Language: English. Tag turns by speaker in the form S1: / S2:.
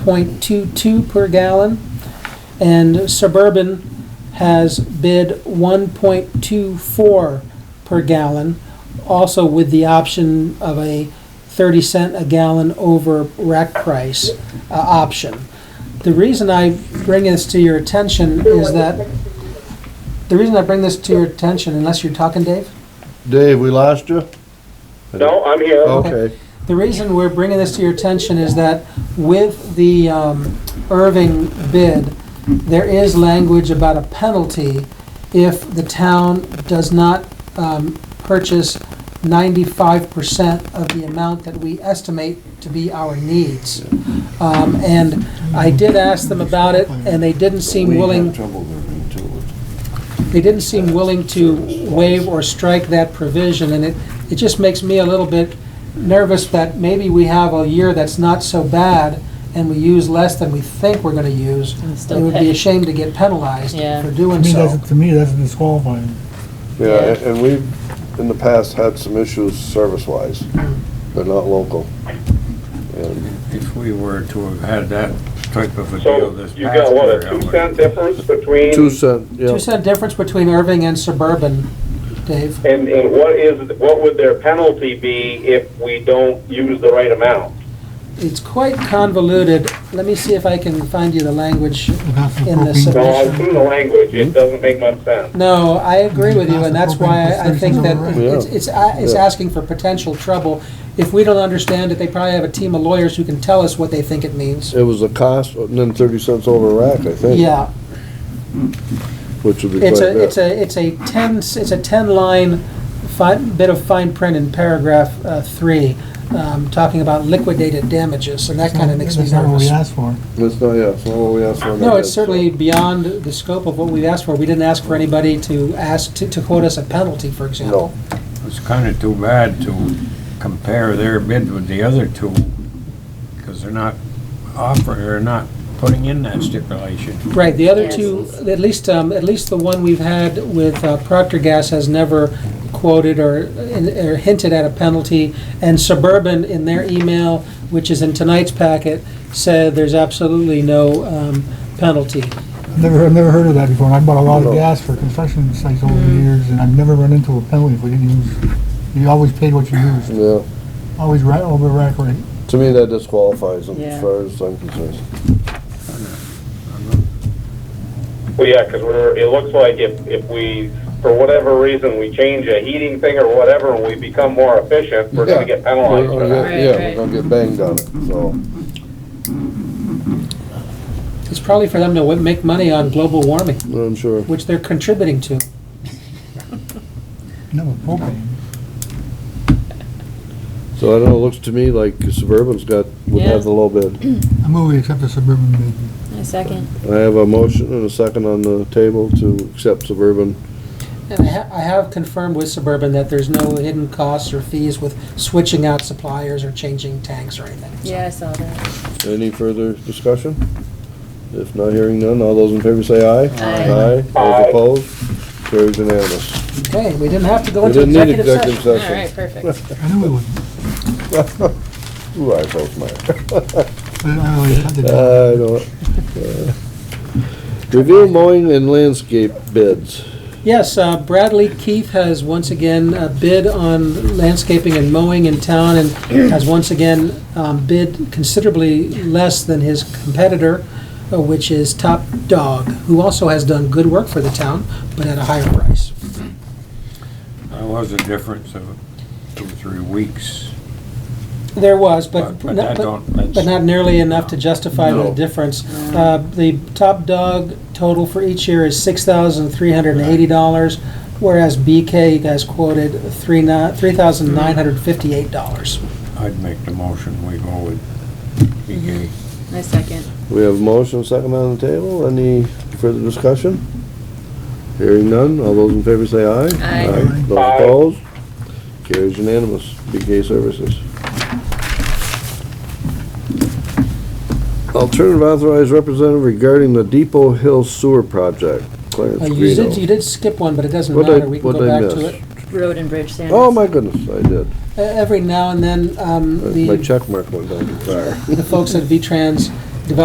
S1: 0.22 per gallon, and Suburban has bid 1.24 per gallon, also with the option of a 30 cent a gallon over rack price uh, option. The reason I bring this to your attention is that, the reason I bring this to your attention, unless you're talking, Dave?
S2: Dave, we lost you?
S3: No, I'm here.
S2: Okay,
S1: The reason we're bringing this to your attention is that with the um, Irving bid, there is language about a penalty if the town does not um, purchase 95% of the amount that we estimate to be our needs. Um, And I did ask them about it, and they didn't seem willing,
S4: trouble there too.
S1: they didn't seem willing to waive or strike that provision, and it, it just makes me a little bit nervous that maybe we have a year that's not so bad, and we use less than we think we're gonna use.
S5: And
S1: It
S5: still
S1: would be
S5: pay.
S1: a shame to get penalized
S5: Yeah.
S1: for
S6: To
S1: doing
S6: me,
S1: so.
S6: that's, to me, that's disqualifying.
S2: yeah, and- and we've, in the past, had some issues service-wise, but not local. And
S4: If we were to have had that type of a deal
S3: So
S4: this past
S3: you
S4: year.
S3: got what, a
S4: I would-
S3: two cent difference between,
S2: Two cent, yeah,
S1: Two cent difference between Irving and suburban, Dave.
S3: and, and what is, what would their penalty be if we don't use the right amount?
S1: It's quite convoluted. Let me see if I can find you the language.
S6: That's the
S1: In the
S6: propane-
S3: No, I've seen the language,
S2: Hmm?
S3: it doesn't make much sense.
S1: No, I agree with you, and that's why I- I think that it's,
S2: Yeah.
S1: it's, a- it's
S2: Yeah.
S1: asking for potential trouble. If we don't understand it, they probably have a team of lawyers who can tell us what they think it means.
S2: it was the cost, and then thirty cents over a rack, I think.
S1: Yeah,
S2: Which would be quite
S1: it's a, it's
S2: bad.
S1: a, it's a ten, s- it's a ten-line fi bit of fine print in paragraph, uh, three, um, talking about liquidated damages, and that kinda makes me
S6: That's not what we
S1: nervous.
S6: asked for.
S2: It's not, yeah, it's not what we asked for.
S1: No, it's certainly beyond the scope of what we asked for. We didn't ask for anybody to ask, to, to quote us a penalty, for example.
S4: It's kind of too bad to compare their bid with the other two, because they're not offering, or not putting in that stipulation.
S1: Right, the other
S5: Yes.
S1: two, at least, um, at least the one we've had with uh, Procter Gas has never quoted or, or hinted at a penalty. And Suburban, in their email, which is in tonight's packet, said there's absolutely no, um, penalty.
S6: Never, I've never heard of that before, and I bought a lot
S2: No.
S6: of gas for construction sites over the years, and I've never run into a penalty if we didn't use, you always paid what you used,
S2: Yeah,
S6: always right over rack rate.
S2: to me, that disqualifies them as
S5: Yeah.
S2: far as I'm concerned.
S3: Well, yeah, because we're, it looks like if, if we, for whatever reason, we change a heating thing or whatever, and we become more efficient, we're
S2: Yeah.
S3: gonna get penalized
S2: We're
S3: for
S2: gonna
S3: that.
S2: get- Yeah, we're
S5: Right,
S2: gonna get banged on it, so.
S1: It's probably for them to wi- make money on global warming,
S2: I'm sure.
S1: which they're contributing to.
S6: No, with propane.
S2: So I don't know, it looks to me like Suburban's got, would
S5: Yeah.
S2: have the low bid.
S6: I move we accept the suburban bid.
S5: A second.
S2: I have a motion and a second on the table to accept Suburban.
S1: And I ha- I have confirmed with Suburban that there's no hidden costs or fees with switching out suppliers or changing tanks or anything. so.
S5: Yeah, I saw that.
S2: Any further discussion? If not hearing none, all those in favor say aye.
S5: Aye.
S2: Those
S3: Aye.
S2: opposed, carries unanimous.
S1: Okay, we didn't have to go
S2: We
S1: into
S2: didn't need
S1: executive session.
S2: executive
S5: All right,
S2: session.
S5: perfect.
S6: I knew we wouldn't,
S2: Ooh, I broke my,
S6: but I always had to do it.
S2: I don't. uh, Review mowing and landscape bids.
S1: Yes, uh, Bradley Keith has once again uh, bid on landscaping and mowing in town and has once again um, bid considerably less than his competitor, uh, which is Top Dog, who also has done good work for the town, but at a higher price.
S4: There was a difference of two, three weeks,
S1: There was,
S4: but,
S1: but.
S4: but that don't, that's.
S1: But not nearly enough to justify the
S2: No.
S1: difference. Uh, The top dog total for each year is six thousand three hundred and eighty dollars, whereas BK has quoted three thousand nine hundred fifty-eight dollars.
S4: I'd make the motion, we go with BK.
S5: A second.
S2: We have a motion, second on the table. Any further discussion? Hearing none, all those in favor say aye.
S5: Aye.
S2: Those
S3: Aye.
S2: opposed? Carries unanimous. BK Services. Alternative authorized representative regarding the Depot Hill Sewer Project, Clarence
S1: You did, you
S2: Greeno.
S1: did skip one, but it doesn't
S2: What'd I-
S1: matter, we can go
S2: what'd I
S1: back to
S2: miss?
S1: it.
S5: Road and bridge standards.
S2: Oh, my goodness, I did.
S1: E- Every now and then, um,
S2: Uh, My
S1: the
S2: check mark went down too far.
S1: the folks at V-Trans